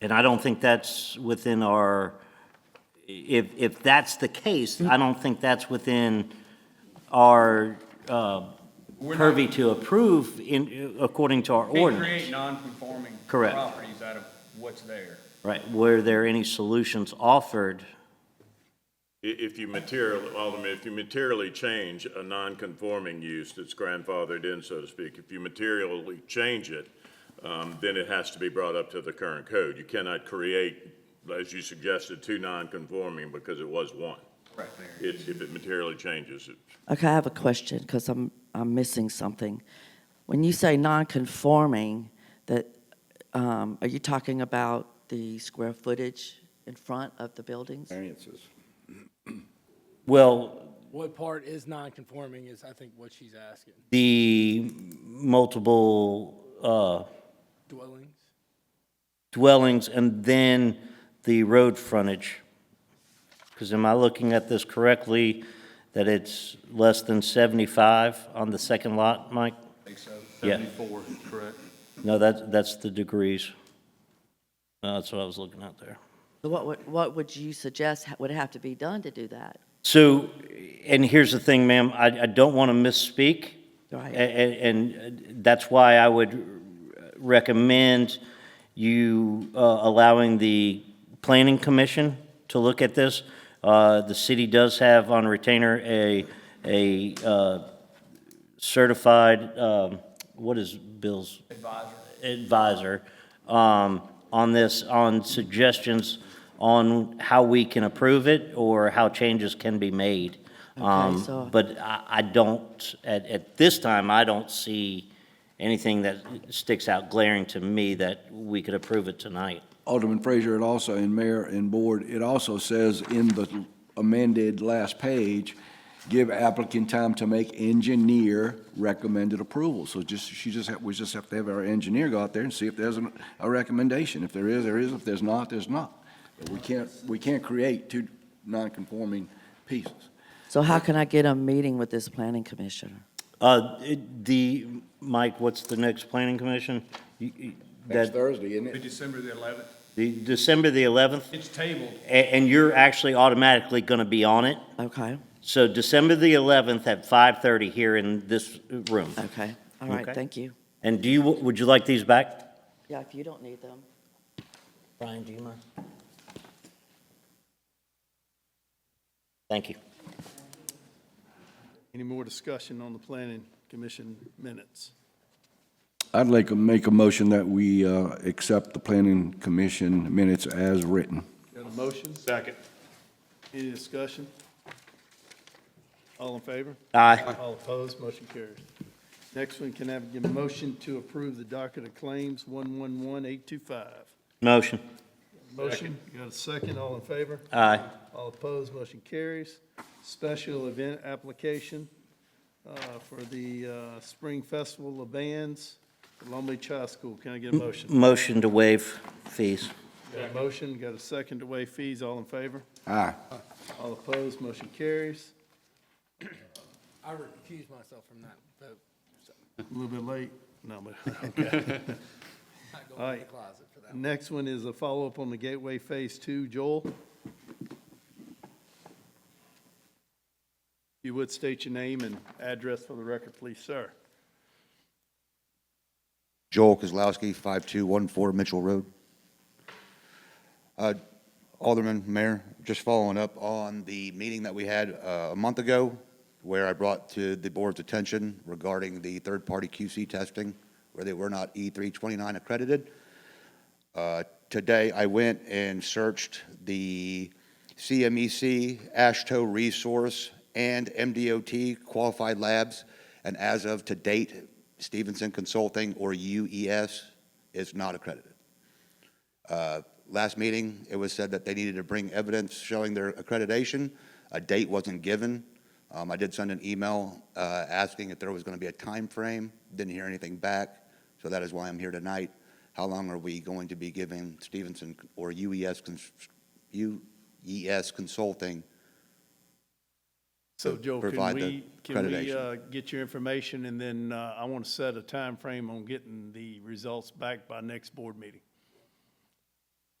And I don't think that's within our, if, if that's the case, Mm-hmm. I don't think that's within our uh, We're not- purview to approve in, according to our Can't create ordinance. non-conforming Correct. properties out of what's there. Right, were there any solutions offered? I- If you material, Alderman, if you materially change a non-conforming use that's grandfathered in, so to speak, if you materially change it, um, then it has to be brought up to the current code. You cannot create, as you suggested, two non-conforming because it was one. Right there. It- If it materially changes it. Okay, I have a question because I'm, I'm missing something. When you say non-conforming, that, um, are you talking about the square footage in front of the buildings? Well, What part is non-conforming is, I think, what she's asking. the multiple uh, Dwellings? dwellings and then the road frontage? Because am I looking at this correctly, that it's less than 75 on the second lot, Mike? Think so? Yeah. Seventy-four, correct. No, that's, that's the degrees. No, That's what I was looking at there. So What would, what would you suggest ha- would have to be done to do that? So, and here's the thing, ma'am, I, I don't want to misspeak. Right. a- a- And that's why I would recommend you uh, allowing the planning commission to look at this. Uh, The city does have on retainer a, a uh, certified, um, what is Bill's? advisor um, on this, on suggestions on how we can approve it or how changes can be made. Um, so- But I, I don't, at, at this time, I don't see anything that sticks out glaring to me that we could approve it tonight. Alderman Frazier, it also, and Mayor and Board, it also says in the amended last page, give applicant time to make engineer recommended approval. So just, she just, ha- we just have to have our engineer go out there and see if there's an- a recommendation. If there is, there is. If there's not, there's not. But we can't, we can't create two non-conforming pieces. So how can I get a meeting with this planning commissioner? Uh, it- The, Mike, what's the next planning commission? You- you- Next That, Thursday, isn't it? December the eleventh. the December the 11th, It's tabled. a- and you're actually automatically going to be on it? Okay, So December the 11th at 5:30 here in this room. okay, all right, Okay. thank you. And do you, would you like these back? Yeah, if you don't need them. Brian, do you mind? Thank you. Any more discussion on the planning commission minutes? I'd like to make a motion that we uh, accept the planning commission minutes as written. Got a motion? Second. Any discussion? All in favor? Aye. All opposed, motion carries. Next one, can I have a motion to approve the docket of claims 111825? Motion. Motion, got a second, all in favor? Aye. All opposed, motion carries. Special event application uh, for the uh, Spring Festival of Bands, Long Beach High School. Can I get a motion? Motion to waive fees. Got a motion, got a second to waive fees, all in favor? Aye. All opposed, motion carries. I recuse myself from that vote. A little bit late. No, but, okay. Not All going in the right. closet for that. Next one is a follow-up on the Gateway Phase Two. Joel? You would state your name and address for the record, please, sir. Joel Kozlowski, 5214 Mitchell Road. Uh, Alderman, Mayor, just following up on the meeting that we had uh, a month ago where I brought to the board's attention regarding the third-party QC testing where they were not E329 accredited. Uh, Today, I went and searched the E CMEC, ASHTO Resource, and MDOT qualified labs, and as of to date, Stevenson Consulting or UES is not accredited. Uh, Last meeting, it was said that they needed to bring evidence showing their accreditation. A date wasn't given. Um, I did send an email uh, asking if there was going to be a time frame. Didn't hear anything back, so that is why I'm here tonight. How long are we going to be giving Stevenson or UES, cons- UES Consulting? So To Joel, can provide the we, can we accreditation. uh, get your information, and then uh, I want to set a time frame on getting the results back by next board meeting?